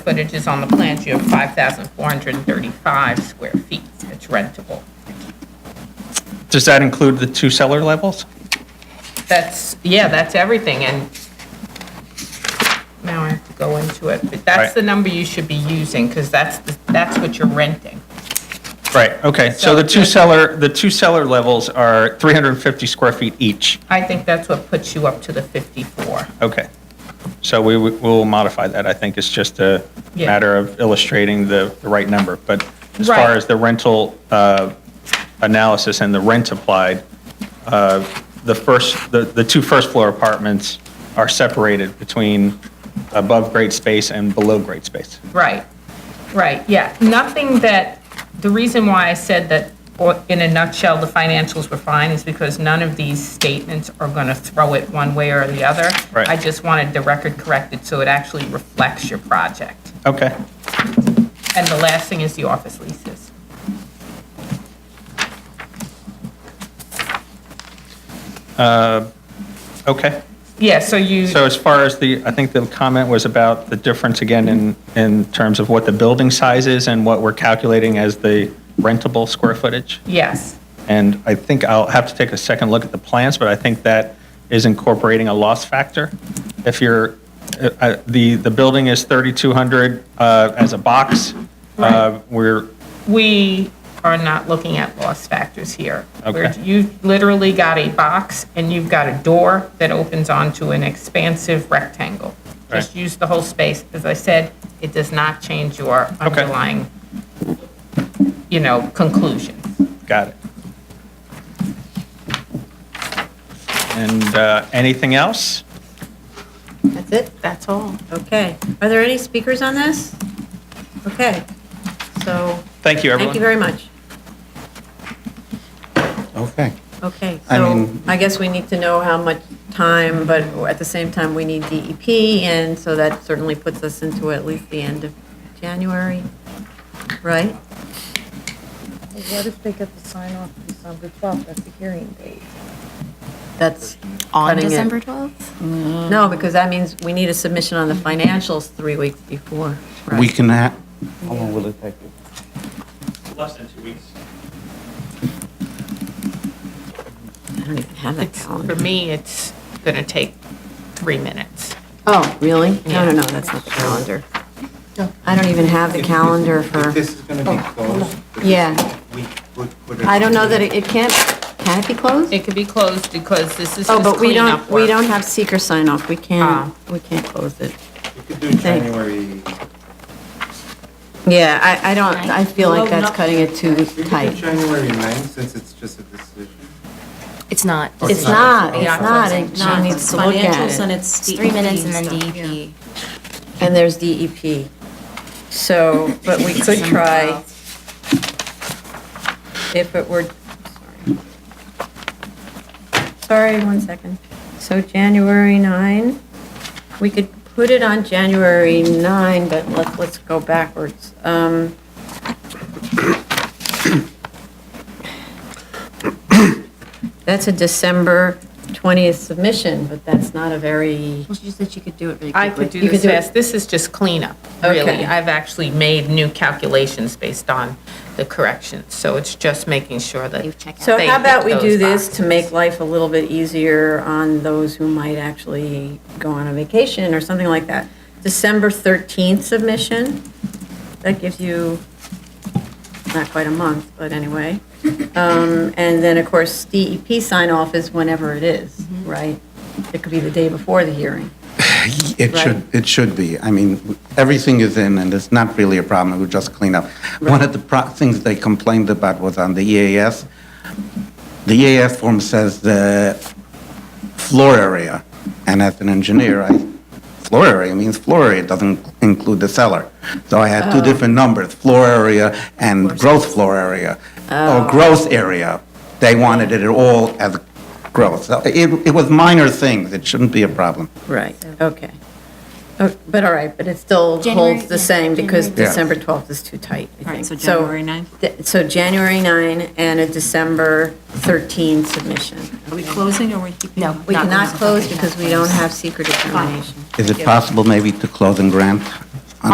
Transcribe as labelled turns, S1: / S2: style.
S1: footage is on the plans, you have 5,435 square feet that's rentable.
S2: Does that include the two cellar levels?
S1: That's, yeah, that's everything, and now I have to go into it, but that's
S2: Right.
S1: the number you should be using, because that's, the- that's what you're renting.
S2: Right, okay, so the two cellar, the two cellar levels are 350 square feet each.
S1: I think that's what puts you up to the 54.
S2: Okay. So we w- will modify that. I think it's just a
S1: Yeah.
S2: matter of illustrating the, the right number. But as far
S1: Right.
S2: as the rental uh, analysis and the rent applied, uh, the first, the, the two first floor apartments are separated between above grade space and below grade space.
S1: Right, right, yeah. Nothing that, the reason why I said that, or in a nutshell, the financials were fine is because none of these statements are going to throw it one way or the other.
S2: Right.
S1: I just wanted the record corrected so it actually reflects your project.
S2: Okay,
S1: And the last thing is the office leases.
S2: okay.
S1: Yeah, so you,
S2: So as far as the, I think the comment was about the difference again in, in terms of what the building size is and what we're calculating as the rentable square footage?
S1: yes,
S2: And I think I'll have to take a second look at the plans, but I think that is incorporating a loss factor. If you're, uh, uh, the, the building is 3,200 uh, as a box. Uh, We're,
S1: we are not looking at loss factors here. Where
S2: Okay.
S1: You've literally got a box and you've got a door that opens onto an expansive rectangle. Just
S2: Right.
S1: use the whole space. As I said, it does not change your underlying, you know, conclusions.
S2: got it. And uh, anything else?
S3: That's it?
S1: That's all.
S3: Okay. Are there any speakers on this? Okay. So,
S2: Thank you,
S3: thank
S2: everyone.
S3: you very much.
S4: Okay.
S3: Okay,
S4: I
S3: so
S4: mean-
S3: I guess we need to know how much time, but at the same time, we need DEP, and so that certainly puts us into at least the end of January, right?
S5: What if they get the sign off December 12th, that's the hearing date?
S3: That's
S6: on
S3: cutting it. Mm-hmm.
S6: December 12th?
S3: No, because that means we need a submission on the financials three weeks before, right?
S4: We can ha, how long will it take you?
S2: Less than two weeks.
S3: I don't even have that
S1: It's,
S3: calendar.
S1: for me, it's going to take three minutes.
S3: Oh, really? No, no, no, that's not the calendar. I don't even have the calendar for,
S7: If this is gonna be closed,
S3: Oh. yeah.
S7: we would put it.
S3: I don't know that it it can't, can it be closed?
S1: It could be closed because this is
S3: Oh,
S1: just
S3: but we
S1: cleanup
S3: don't, we
S1: work.
S3: don't have seeker sign off. We can't,
S1: Ah.
S3: we can't close it.
S7: You could do January,
S3: Yeah, I, I don't, I feel like that's cutting it too
S7: we could do
S3: tight.
S7: January 9th, since it's just a decision.
S6: It's not.
S7: Oh,
S3: It's not, it's
S1: Yeah.
S3: not, it John needs to look
S8: financials
S3: at
S8: and
S3: it.
S8: it's
S6: It's three minutes and then E
S8: DEP stuff, yeah.
S6: DEP.
S3: And there's DEP. So, but we could try, if it were, sorry. Sorry, one second. So January 9, we could put it on January 9, but let's, let's go backwards. Um, That's a December 20th submission, but that's not a very,
S8: Well, she just said she could do it really
S1: I
S8: quickly.
S1: could do
S3: You could
S1: this
S3: do it-
S1: fast. This is just cleanup, really.
S3: Okay.
S1: I've actually made new calculations based on the corrections, so it's just making sure that.
S6: You've checked out.
S3: so
S1: they
S3: how about
S1: hit
S3: we do
S1: those
S3: this to make
S1: boxes.
S3: life a little bit easier on those who might actually go on a vacation or something like that? December 13th submission, that gives you not quite a month, but anyway. Um, And then, of course, DEP sign-off is whenever it is,
S1: Mm-hmm.
S3: right? It could be the day before the hearing.
S4: It should, it should be. I mean, everything is in, and it's not really a problem, we just clean up. One of the pro- things they complained about was on the EAS. The EAS form says the floor area, and as an engineer, I, floor area means floor area, doesn't include the cellar. So I had two different numbers, floor area and gross floor area, or gross area. They wanted it all as gross. So It, it was minor things, it shouldn't be a problem.
S3: Right, okay. Oh, But all right, but it still
S6: January-
S3: holds the
S6: yeah,
S3: same because
S6: January.
S4: Yeah.
S3: December 12th is too tight, I think.
S8: All right, so January 9th?
S3: th- So January 9 and a December 13 submission.
S8: Are we closing or are we keeping?
S6: No,
S3: We
S6: Not
S3: cannot
S6: closed.
S3: close because we don't have secret determination.
S4: Is it possible maybe to close and grant?